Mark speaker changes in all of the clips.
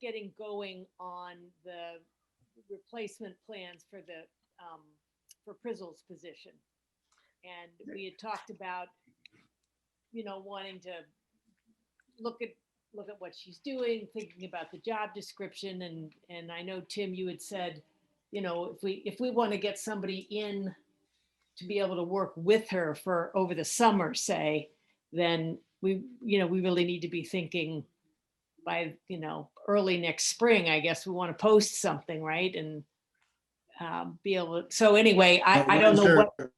Speaker 1: getting going on the replacement plans for the, um, for Prizzle's position. And we had talked about, you know, wanting to look at, look at what she's doing, thinking about the job description and, and I know, Tim, you had said, you know, if we, if we want to get somebody in to be able to work with her for, over the summer, say, then we, you know, we really need to be thinking by, you know, early next spring, I guess we want to post something, right? And um, be able, to so anyway,
Speaker 2: Now,
Speaker 1: I, I
Speaker 2: what
Speaker 1: don't
Speaker 2: is
Speaker 1: know
Speaker 2: there-
Speaker 1: what,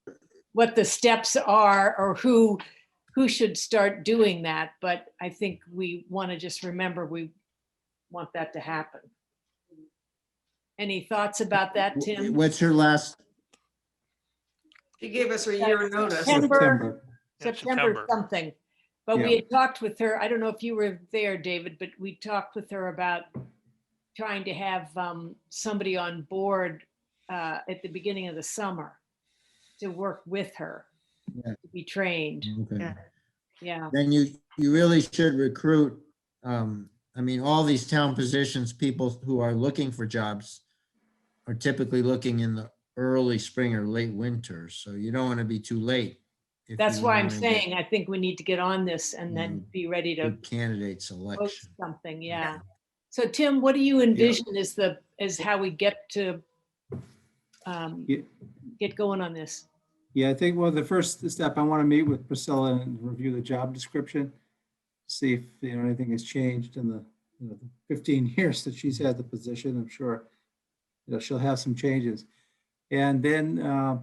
Speaker 1: what the steps are or who, who should start doing that, but I think we want to just remember we want that to happen. Any thoughts about that, Tim?
Speaker 2: What's her last?
Speaker 3: She gave us a year notice.
Speaker 1: September.
Speaker 2: September.
Speaker 4: Yeah,
Speaker 1: September something. But we
Speaker 2: Yeah.
Speaker 1: had talked with her, I don't know if you were there, David, but we talked with her about trying to have um, somebody on board uh, at the beginning of the summer to work with her,
Speaker 2: Yeah.
Speaker 1: to be trained.
Speaker 2: Okay.
Speaker 3: Yeah.
Speaker 1: Yeah,
Speaker 2: Then you, you really should recruit, um, I mean, all these town positions, people who are looking for jobs are typically looking in the early spring or late winter, so you don't want to be too late. if
Speaker 1: that's
Speaker 2: you
Speaker 1: why I'm
Speaker 2: wanna get
Speaker 1: saying I uh, think we need to get on this and then
Speaker 2: Mhm.
Speaker 1: be ready to
Speaker 2: Good candidate
Speaker 1: post
Speaker 2: selection.
Speaker 1: something, yeah. So Tim, what do you envision is the, is how we get to um,
Speaker 5: Ye-
Speaker 1: get going on this?
Speaker 5: Yeah, I think, well, the first step, I want to meet with Priscilla and review the job description. See if, you know, anything has changed in the, you know, the fifteen years that she's had the position, I'm sure. You know, she'll have some changes. And then uh,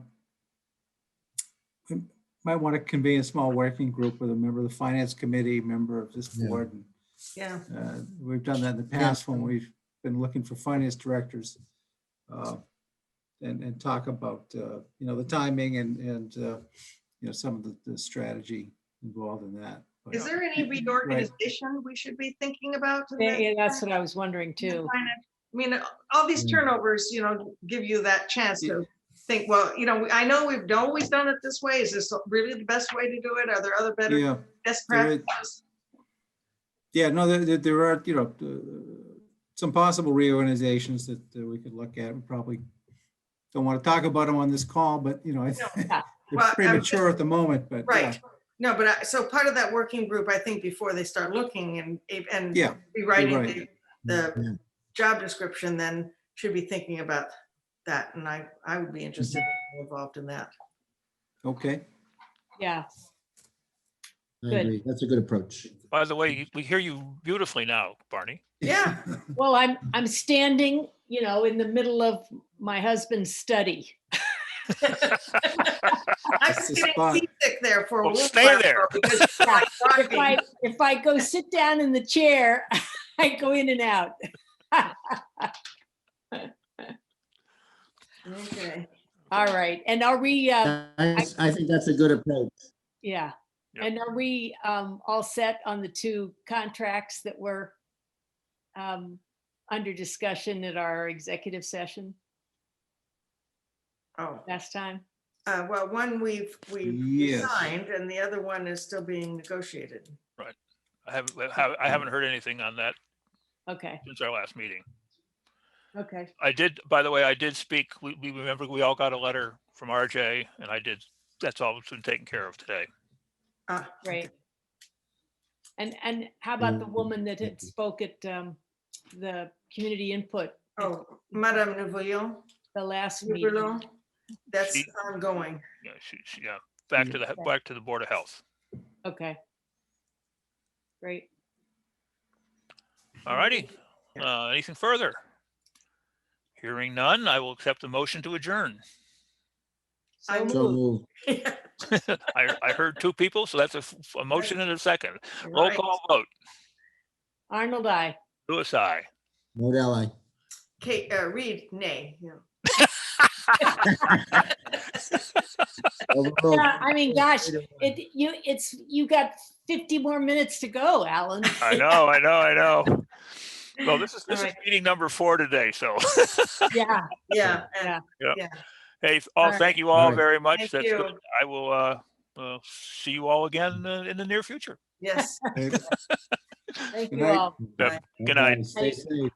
Speaker 5: we might want to convene a small working group with a member of the finance committee, member of this
Speaker 2: Yeah.
Speaker 5: board. and,
Speaker 3: Yeah,
Speaker 5: uh, We've done that in the
Speaker 2: Yeah.
Speaker 5: past when we've been looking for finance directors. uh, And, and talk about, uh, you know, the timing and, and, uh, you know, some of the, the strategy involved in that. But,
Speaker 3: is there any reorganization we should be thinking about? in
Speaker 1: Yeah,
Speaker 3: that-
Speaker 1: yeah, that's what I was wondering too.
Speaker 3: I mean, all
Speaker 5: Mm.
Speaker 3: these turnovers, you know, give you that chance to think, well, you know, I know we've always done it this way. Is this really the best way to do it? Are there other better,
Speaker 5: uh, Yeah,
Speaker 3: best
Speaker 5: there is.
Speaker 3: practices?
Speaker 5: yeah, no, there, there- there are, you know, uh, some possible reorganizations that uh, we could look at. We probably don't want to talk about them on this call, but, you know,
Speaker 3: No.
Speaker 5: I think
Speaker 3: Well,
Speaker 5: they're
Speaker 3: I'm
Speaker 5: premature at the moment, but. yeah.
Speaker 3: Right. No, but I, so part of that working group, I think, before they start looking and, and
Speaker 5: Yeah,
Speaker 3: rewriting
Speaker 5: right.
Speaker 3: the-
Speaker 1: uh,
Speaker 3: the
Speaker 2: Yeah.
Speaker 3: job description, then should be thinking about that. And I, I would be interested
Speaker 5: Mm-hmm.
Speaker 3: in being involved in that.
Speaker 5: Okay.
Speaker 1: Yeah,
Speaker 2: I
Speaker 1: Good.
Speaker 2: agree. That's a good approach.
Speaker 4: By the way, you- we hear you beautifully now, Barney.
Speaker 3: Yeah.
Speaker 1: well, I'm, I'm standing, you know, in the middle of my husband's study.
Speaker 3: I
Speaker 5: That's
Speaker 3: was
Speaker 5: the
Speaker 3: getting
Speaker 5: spot.
Speaker 3: seasick there for a
Speaker 4: Well,
Speaker 3: little
Speaker 4: stay
Speaker 3: while
Speaker 4: there.
Speaker 3: because it's like
Speaker 1: If I,
Speaker 3: rocking.
Speaker 1: if I go sit down in the chair, I go in and out.
Speaker 3: Okay.
Speaker 1: All right, and are we, uh,
Speaker 2: I I think that's a good approach.
Speaker 1: yeah,
Speaker 4: Yeah.
Speaker 1: and are we um all set on the two contracts that were um under discussion at our executive session
Speaker 3: Oh,
Speaker 1: last time?
Speaker 3: uh, well, one we've, we've
Speaker 5: Yes.
Speaker 3: signed and the other one is still being negotiated.
Speaker 4: I haven't, I haven't- I haven't heard anything on that
Speaker 1: Okay,
Speaker 4: since our last meeting.
Speaker 1: okay,
Speaker 4: I did, by the way, I did speak, we, we remember we all got a letter from RJ and I did, that's all been taken care of today.
Speaker 3: Uh,
Speaker 1: great. And, and how about the
Speaker 2: Mm,
Speaker 1: woman that had
Speaker 2: thank you.
Speaker 1: spoke at um the community input,
Speaker 3: Oh, Madame Nouvello,
Speaker 1: the last meeting?
Speaker 3: Nouvello, that's
Speaker 4: She-
Speaker 3: ongoing.
Speaker 4: Yeah, she, she, yeah, back to the, back to the Board of Health.
Speaker 1: Okay. Great.
Speaker 4: All righty. Uh, anything further? Hearing none, I will accept the motion to adjourn.
Speaker 3: I
Speaker 1: So
Speaker 2: So
Speaker 1: moved.
Speaker 2: moved.
Speaker 4: I, I heard two people, so that's a, f- a motion and a second. Roll
Speaker 3: Right.
Speaker 4: call vote.
Speaker 1: Arnold, I.
Speaker 4: Louis, aye.
Speaker 2: Vote aye.
Speaker 3: Kate, uh, Reed, nay. yeah.
Speaker 2: Overruled.
Speaker 1: Yeah, I mean, gosh, it, you, it's, you got 50 more minutes to go, Alan.
Speaker 4: I know, I know, I know. Well, this is, this
Speaker 3: All
Speaker 4: is meeting number four today, so,
Speaker 1: Yeah.
Speaker 3: Yeah, and
Speaker 4: hey,
Speaker 1: All
Speaker 4: all,
Speaker 1: right.
Speaker 4: thank you
Speaker 2: All
Speaker 4: all
Speaker 2: right.
Speaker 4: very much.
Speaker 3: Thank
Speaker 4: That's
Speaker 3: you.
Speaker 4: good. I will, uh, uh, see you all again uh, in the near future.
Speaker 3: yes.
Speaker 1: Thank
Speaker 5: Good
Speaker 1: you
Speaker 5: night.
Speaker 1: all.
Speaker 4: Good night.
Speaker 2: Stay safe.